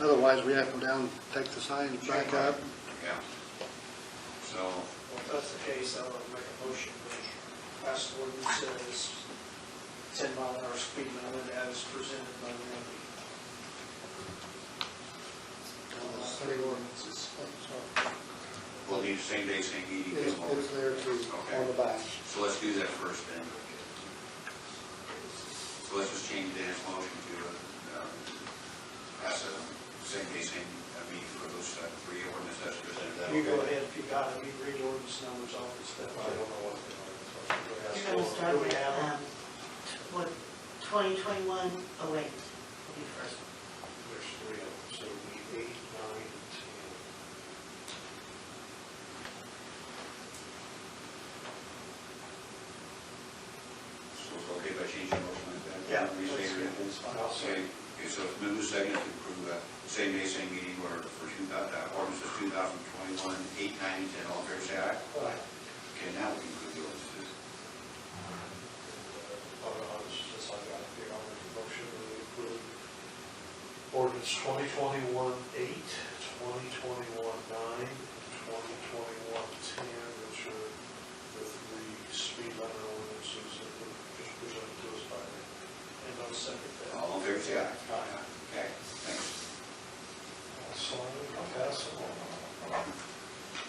Otherwise, we have to go down, take the signs back up. Yeah. So, Well, if that's the case, I'll make a motion, which last ordinance says ten mile an hour speed limit as presented by Randy. Uh, City ordinances, I'm sorry, we'll need same day, same meeting. is, is there to, on the back. So let's do that first then. So let's just change Dan's motion to, um, pass a same day, same uh, meeting for those uh, three ordinance that's presented. That You go okay? ahead, if you got it, you read ordinance numbers off and stuff. I don't know what they are. You're gonna start Do we with, have them? um, what, twenty twenty-one, oh wait, will be first. There's three of them, so we eight, nine, and ten. So it's okay if I change the motion like that? Yeah. Restate it. It's fine. I'll Okay, okay, so it's moved second to approve uh, same day, same meeting order for two thou- uh, ordinances two thousand twenty-one, eight, nine, and ten, all fair say aye. Okay, now we can approve the ordinances. Uh, I was just, I got the, I'll make a motion to approve ordinance twenty twenty-one eight, twenty twenty-one nine, twenty twenty-one ten, which are the three speed limit ordinances that were just presented to us by the And I'll second that. All in favor, say aye. Aye. Okay, thanks. So I'll pass them on.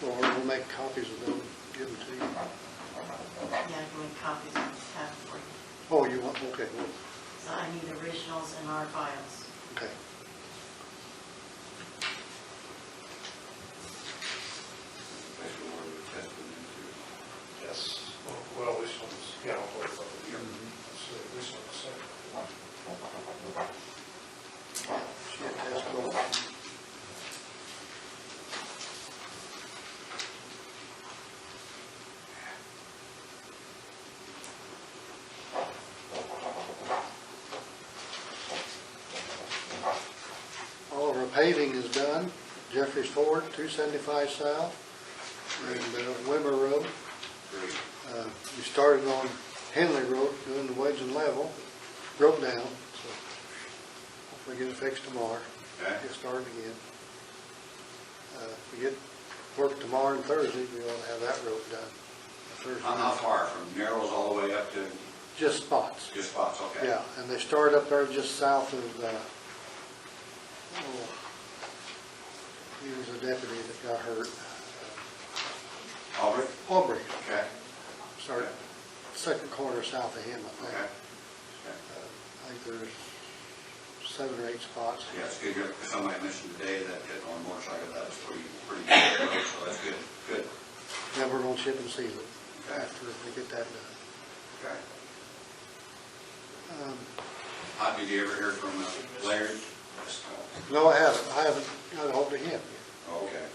Or we'll make copies of them, give them to you. Yeah, I'm doing copies on the tab for you. Oh, you want, okay, well, So I need originals and our files. okay. Place your order with test for them too. Yes, well, this one's, yeah, I'll put it over here. Let's see, this one's second. Shit, that's cool. All of our paving is done. Jeffrey's Ford, 275 South, and uh, Wimmer Road. Great. Uh, We started on Henley Road, doing the wedge and level, broke down, so hopefully get it fixed tomorrow. Okay. Get started again. Uh, If we get work tomorrow and Thursday, we ought to have that road done. Thursday. How how far, from Narrows all the way up to Just spots, just spots, okay? yeah, and they started up there just south of, uh, oh, he was a deputy that got hurt. Uh, Albert? Aubrey, Okay, started second corner south of him, I think. Uh, okay. I think there's seven or eight spots. Yeah, it's good, because somebody mentioned today that hit on motorcycle, that was pretty, pretty good, road, so that's good, good, Then we're gonna chip and seal it after we get that done. okay. Um, How, did you ever hear from uh, Larry? No, I haven't, I haven't got ahold of him. Okay,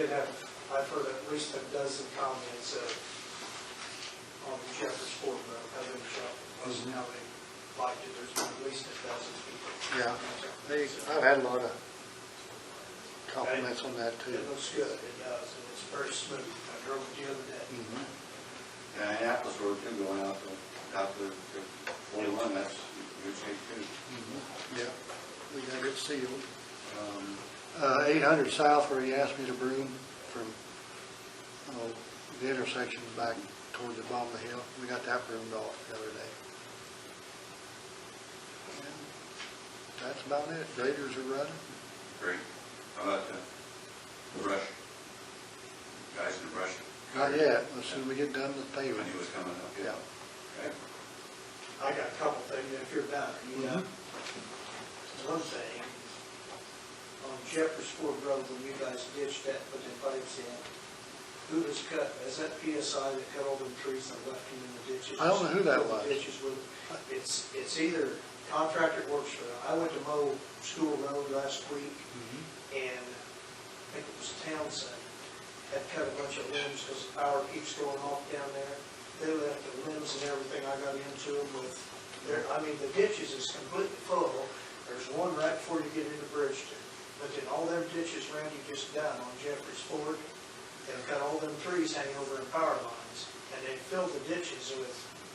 Did have, I've heard at least a dozen comments uh, on the Jeffers Ford Road, how they shop, plus Mm-hmm. how they liked it, there's been at least a dozen people. Yeah, they, I've had a lot of compliments on that too. It looks good, it does, and it's very smooth, I drove it the other day. Mhm. and Annapolis Road too, going out to, out to to forty-one, that's good shape too. Mm-hmm. Yeah, we got it sealed. Um, Uh, eight hundred south where he asked me to broom from, oh, the intersection back toward the bottom of the hill. We got that broomed off the other day. And That's about it. Graders are running. Great. How about the brush? Guys in the brush? Not yet, as soon as we get done with When paving. he was coming up, yeah. Yeah. Okay. I got a couple things if you're done, you know. Mm-hmm. One thing, on Jeffers Ford Road, when you guys ditched that, put the pipes in, who was cut, is that PSI that cut all them trees and left them in the ditches? I don't know who that was. Ditches with, it's, it's either contractor works for, I went to mow School Road last week, Mm-hmm. and I think it was Townsend, had cut a bunch of limbs because the power keeps going off down there. They left the limbs and everything, I got into them with, there, I mean, the ditches is completely full. There's one right before you get into Bridgeton, but then all them ditches Randy just done on Jeffrey's Ford, they've got all them trees hanging over in power lines, and they filled the ditches with